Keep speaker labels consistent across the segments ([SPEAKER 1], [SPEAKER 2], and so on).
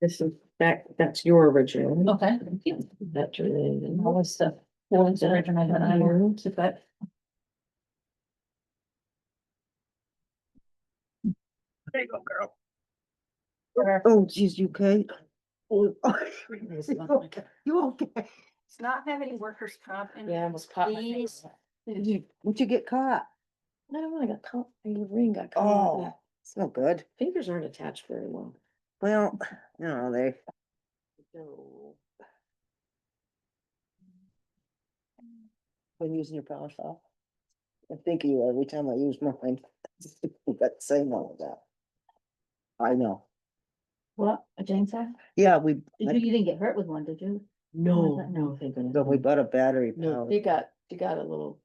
[SPEAKER 1] This is, that, that's your original.
[SPEAKER 2] Okay.
[SPEAKER 1] That's related.
[SPEAKER 2] What was the, what was the original that I wrote to that?
[SPEAKER 3] There you go, girl.
[SPEAKER 1] Oh, geez, you okay?
[SPEAKER 3] Oh,
[SPEAKER 1] It's
[SPEAKER 3] You
[SPEAKER 1] not like
[SPEAKER 3] okay? You okay?
[SPEAKER 2] Does not have any workers' comp in
[SPEAKER 1] Yeah, I almost caught my
[SPEAKER 2] Please.
[SPEAKER 1] face.
[SPEAKER 3] Did you, would you get caught?
[SPEAKER 1] I don't know, I got caught, my ring got caught. in
[SPEAKER 3] Oh,
[SPEAKER 1] that.
[SPEAKER 3] it's no good.
[SPEAKER 1] Fingers aren't attached very well.
[SPEAKER 3] Well, you know, they,
[SPEAKER 1] No.
[SPEAKER 3] when using your power saw. I think you every time I use mine. That same one with that. I know.
[SPEAKER 2] What, a chainsaw?
[SPEAKER 3] Yeah, we,
[SPEAKER 2] Did you, you didn't get hurt with one, did you?
[SPEAKER 1] No,
[SPEAKER 2] that?
[SPEAKER 1] no, thank goodness.
[SPEAKER 3] but we bought a battery.
[SPEAKER 1] No,
[SPEAKER 3] powered-
[SPEAKER 1] they got, they got a little,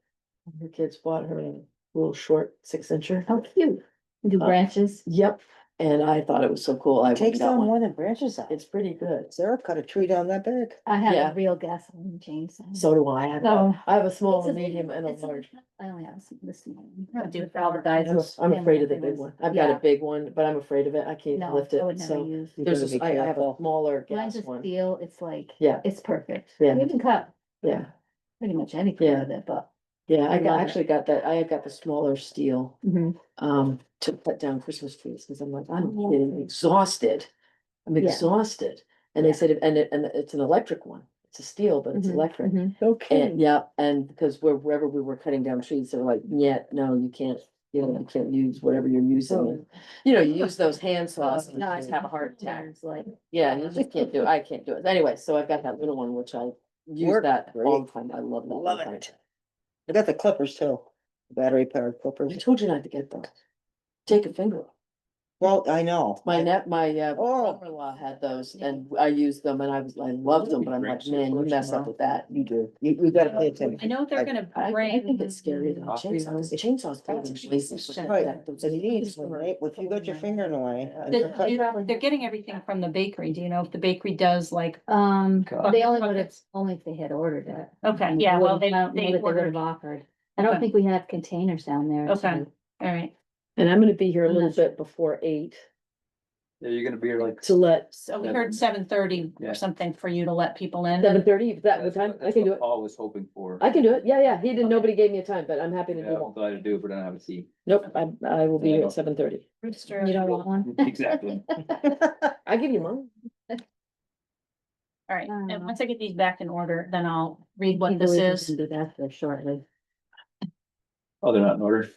[SPEAKER 1] her kids bought her a little short six incher. How cute.
[SPEAKER 2] Do
[SPEAKER 1] Uh,
[SPEAKER 2] branches?
[SPEAKER 1] Yep, and I thought it was so cool. I
[SPEAKER 3] Takes
[SPEAKER 1] went
[SPEAKER 3] down
[SPEAKER 1] down
[SPEAKER 3] more
[SPEAKER 1] one.
[SPEAKER 3] than branches out.
[SPEAKER 1] It's pretty good.
[SPEAKER 3] Sarah cut a tree down that big.
[SPEAKER 2] I
[SPEAKER 1] yeah.
[SPEAKER 2] have a real gasoline chainsaw.
[SPEAKER 1] So do I. I have a-
[SPEAKER 2] So-
[SPEAKER 1] I have a small,
[SPEAKER 2] It's
[SPEAKER 1] a
[SPEAKER 2] a-
[SPEAKER 1] medium and a
[SPEAKER 2] it's a-
[SPEAKER 1] large.
[SPEAKER 2] I only have some this one. I do it for all the guys.
[SPEAKER 1] I'm
[SPEAKER 2] who
[SPEAKER 1] s- I'm
[SPEAKER 2] family
[SPEAKER 1] afraid of the big
[SPEAKER 2] members.
[SPEAKER 1] one. I've got a
[SPEAKER 2] Yeah.
[SPEAKER 1] big one, but I'm afraid of it. I can't
[SPEAKER 2] No,
[SPEAKER 1] lift
[SPEAKER 2] I
[SPEAKER 1] it,
[SPEAKER 2] would never
[SPEAKER 1] so.
[SPEAKER 2] use.
[SPEAKER 3] You
[SPEAKER 1] There's
[SPEAKER 3] gotta
[SPEAKER 1] this,
[SPEAKER 3] be
[SPEAKER 1] I I have a
[SPEAKER 3] careful.
[SPEAKER 1] smaller
[SPEAKER 2] Mine's
[SPEAKER 1] gas
[SPEAKER 2] just
[SPEAKER 1] one.
[SPEAKER 2] steel, it's like,
[SPEAKER 1] Yeah.
[SPEAKER 2] it's perfect.
[SPEAKER 1] Yeah.
[SPEAKER 2] You can cut
[SPEAKER 1] Yeah,
[SPEAKER 2] pretty much anything
[SPEAKER 1] Yeah.
[SPEAKER 2] with it, but.
[SPEAKER 1] yeah, I
[SPEAKER 2] I
[SPEAKER 1] got,
[SPEAKER 2] love it.
[SPEAKER 1] actually got that, I got the smaller steel, um, to put down Christmas trees, cause I'm like, I'm
[SPEAKER 2] Yeah.
[SPEAKER 1] getting exhausted. I'm
[SPEAKER 2] Yeah.
[SPEAKER 1] exhausted. And they
[SPEAKER 2] Yeah.
[SPEAKER 1] said, it- and it, and it's an electric one. It's a steel, but it's
[SPEAKER 2] Mhm,
[SPEAKER 1] electric.
[SPEAKER 3] Okay.
[SPEAKER 1] And yeah, and because where- wherever we were cutting down trees, they were like, yeah, no, you can't, you know, you can't use whatever you're using.
[SPEAKER 2] Oh.
[SPEAKER 1] And, You know, you use those hand saws and you just have a heart attack.
[SPEAKER 2] It's Like,
[SPEAKER 1] Yeah, you just can't do, it. I can't do it. Anyway, so I've got that little one, which I use
[SPEAKER 3] Work
[SPEAKER 1] that all
[SPEAKER 3] great.
[SPEAKER 1] the time. I love that.
[SPEAKER 3] Love
[SPEAKER 1] thing.
[SPEAKER 3] it. I got the clippers too, battery powered
[SPEAKER 1] I
[SPEAKER 3] clippers.
[SPEAKER 1] told you not to get those. Take a finger. off.
[SPEAKER 3] Well, I know.
[SPEAKER 1] My net, my uh,
[SPEAKER 3] Oh.
[SPEAKER 1] brother-in-law had those and I used them and I was, I loved them, but I'm like, man, you mess up with that.
[SPEAKER 3] You do. You, you gotta pay attention.
[SPEAKER 2] I know
[SPEAKER 3] I-
[SPEAKER 2] they're gonna
[SPEAKER 1] I, I
[SPEAKER 2] bring.
[SPEAKER 1] think it's scary than chainsaws. Chainsaws.
[SPEAKER 2] That's
[SPEAKER 1] probably release
[SPEAKER 2] just
[SPEAKER 1] those-
[SPEAKER 2] shut
[SPEAKER 3] Right,
[SPEAKER 1] that- those-
[SPEAKER 3] So you need to, right, if you got your finger in the way. and you're
[SPEAKER 2] They're,
[SPEAKER 3] cut-
[SPEAKER 2] they're- they're getting everything from the bakery. Do you know if the bakery does like,
[SPEAKER 4] Um,
[SPEAKER 3] God.
[SPEAKER 4] they only would have, only if they had ordered it.
[SPEAKER 2] okay,
[SPEAKER 4] And
[SPEAKER 2] yeah,
[SPEAKER 4] I
[SPEAKER 2] well,
[SPEAKER 4] wouldn't-
[SPEAKER 2] they,
[SPEAKER 4] I don't know
[SPEAKER 2] they
[SPEAKER 4] that would have
[SPEAKER 2] ordered, all
[SPEAKER 4] Offered. I don't
[SPEAKER 2] Okay.
[SPEAKER 4] think we have containers down there.
[SPEAKER 2] Okay.
[SPEAKER 4] to-
[SPEAKER 2] right.
[SPEAKER 1] And I'm gonna be here a
[SPEAKER 4] I'm
[SPEAKER 1] little
[SPEAKER 4] not sure.
[SPEAKER 1] bit before eight
[SPEAKER 5] Yeah, you're gonna be here like,
[SPEAKER 1] to let
[SPEAKER 2] So we heard seven thirty
[SPEAKER 5] Yeah.
[SPEAKER 2] or something for you to let people in.
[SPEAKER 1] seven thirty, if that was
[SPEAKER 5] that's
[SPEAKER 1] time,
[SPEAKER 5] what
[SPEAKER 1] I
[SPEAKER 5] that's
[SPEAKER 1] can do
[SPEAKER 5] what
[SPEAKER 1] it.
[SPEAKER 5] Paul was hoping for.
[SPEAKER 1] I can do it. Yeah, yeah. He didn't, nobody gave me a time, but I'm happy to
[SPEAKER 5] Yeah,
[SPEAKER 1] do
[SPEAKER 5] I'm
[SPEAKER 1] it.
[SPEAKER 5] glad to do it, but I don't have a seat.
[SPEAKER 1] Nope, I, I will be here at seven thirty.
[SPEAKER 2] Rooster.
[SPEAKER 4] You don't want one?
[SPEAKER 5] Exactly.
[SPEAKER 1] I give you mine.
[SPEAKER 2] All right,
[SPEAKER 4] Uh,
[SPEAKER 2] and once I get these back in order, then I'll read what
[SPEAKER 4] Either
[SPEAKER 2] this
[SPEAKER 4] way, we
[SPEAKER 2] is.
[SPEAKER 4] can Do that for shortly.
[SPEAKER 5] Oh, they're not in order.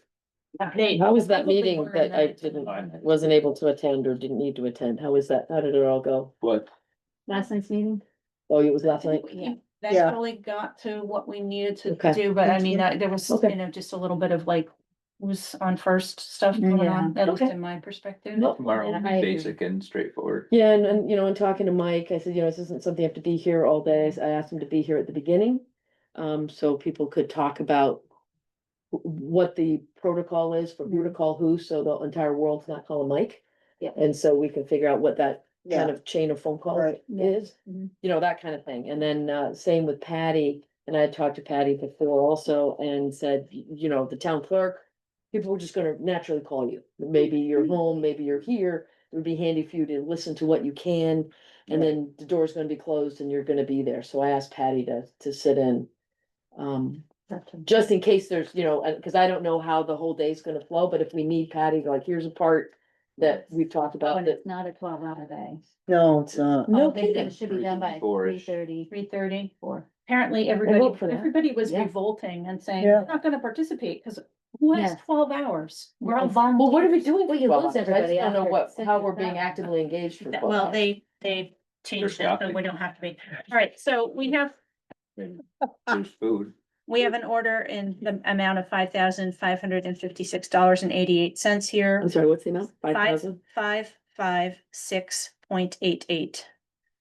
[SPEAKER 2] They-
[SPEAKER 1] How was
[SPEAKER 2] they
[SPEAKER 1] that
[SPEAKER 2] probably
[SPEAKER 1] meeting
[SPEAKER 2] were,
[SPEAKER 1] that
[SPEAKER 2] and
[SPEAKER 1] I
[SPEAKER 2] then-
[SPEAKER 1] didn't, wasn't able to attend or didn't need to attend? How was that? How did it all go?
[SPEAKER 5] What?
[SPEAKER 4] Last night's meeting?
[SPEAKER 1] Oh, it was last night?
[SPEAKER 2] Yeah, That
[SPEAKER 3] Yeah.
[SPEAKER 2] really got to what we needed
[SPEAKER 1] Okay.
[SPEAKER 2] to do, but I mean, I- there was,
[SPEAKER 1] Okay.
[SPEAKER 2] you know, just a little bit of like, who's on first stuff going
[SPEAKER 4] Yeah.
[SPEAKER 2] on, at least
[SPEAKER 1] Mm, Okay.
[SPEAKER 2] in my perspective.
[SPEAKER 1] Nope.
[SPEAKER 5] Tomorrow, will
[SPEAKER 4] Yeah,
[SPEAKER 5] be
[SPEAKER 4] I agree.
[SPEAKER 5] basic and straightforward.
[SPEAKER 1] Yeah, and, and, you know, and talking to Mike, I said, you know, this isn't something you have to be here all day. I asked him to be here at the beginning. Um, so people could talk about wh- what the protocol is for who to call who, so the entire world's not calling Mike.
[SPEAKER 4] Yeah.
[SPEAKER 1] And so we can figure out what that kind
[SPEAKER 3] Yeah,
[SPEAKER 1] of chain of phone call
[SPEAKER 3] Right.
[SPEAKER 4] Yeah.
[SPEAKER 1] is,
[SPEAKER 4] Mhm.
[SPEAKER 1] you know, that kind of thing. And then, uh, same with Patty, and I had talked to Patty before also and said, y- you know, the town clerk, people were just gonna naturally call you. Maybe you're home, maybe you're here, it would be handy for you to listen to what you can. And then the door's gonna be closed and you're gonna be there. So I asked Patty to, to sit in. Um, just in case there's, you know, uh, cause I don't know how the whole day's gonna flow, but if we need Patty, like, here's a part that we've talked
[SPEAKER 4] Oh,
[SPEAKER 1] about
[SPEAKER 4] and
[SPEAKER 1] that.
[SPEAKER 4] it's not a twelve hour day.
[SPEAKER 3] no, it's not.
[SPEAKER 1] No
[SPEAKER 4] Oh, they said
[SPEAKER 1] kidding.
[SPEAKER 4] It should be done by three
[SPEAKER 5] 3:34 -ish.
[SPEAKER 4] thirty,
[SPEAKER 2] Three thirty,
[SPEAKER 4] four.
[SPEAKER 2] apparently
[SPEAKER 1] vote
[SPEAKER 2] everybody,
[SPEAKER 1] for that.
[SPEAKER 2] everybody was
[SPEAKER 1] Yeah.
[SPEAKER 2] revolting and saying,
[SPEAKER 3] Yeah.
[SPEAKER 2] we're not gonna participate, cause what is
[SPEAKER 4] Yes.
[SPEAKER 2] twelve hours? We're all
[SPEAKER 4] Yes.
[SPEAKER 2] volunteers.
[SPEAKER 1] Well, what are we doing?
[SPEAKER 4] Well,
[SPEAKER 1] for
[SPEAKER 4] you
[SPEAKER 1] 12 hours?
[SPEAKER 4] lose
[SPEAKER 1] I just
[SPEAKER 4] everybody
[SPEAKER 1] don't know
[SPEAKER 4] after
[SPEAKER 1] what,
[SPEAKER 4] six
[SPEAKER 1] how
[SPEAKER 4] and
[SPEAKER 1] we're being
[SPEAKER 4] seven.
[SPEAKER 1] actively engaged for.
[SPEAKER 2] That-
[SPEAKER 1] 12
[SPEAKER 2] Well,
[SPEAKER 1] hours.
[SPEAKER 2] they, they've changed it, so
[SPEAKER 5] shopping.
[SPEAKER 2] we don't have to be, all right, so we have,
[SPEAKER 5] There's food.
[SPEAKER 2] we have an order in the amount of five thousand five hundred and fifty-six dollars and eighty-eight cents here.
[SPEAKER 1] I'm sorry, what's the amount? Five thousand?
[SPEAKER 2] Five, five, six point eight eight.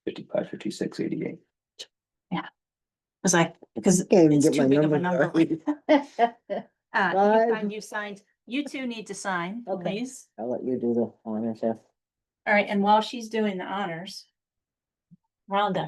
[SPEAKER 5] Fifty-five, fifty-six, eighty-eight.
[SPEAKER 2] Was I, because
[SPEAKER 3] Can't even
[SPEAKER 2] it's
[SPEAKER 3] get my
[SPEAKER 2] too big of a
[SPEAKER 3] number
[SPEAKER 2] number.
[SPEAKER 3] right.
[SPEAKER 2] Uh,
[SPEAKER 3] Five.
[SPEAKER 2] you sign, you signed, you two need to sign,
[SPEAKER 4] Okay.
[SPEAKER 2] please.
[SPEAKER 3] I'll let you do the honors, yeah.
[SPEAKER 2] All right, and while she's doing the honors. Rhonda,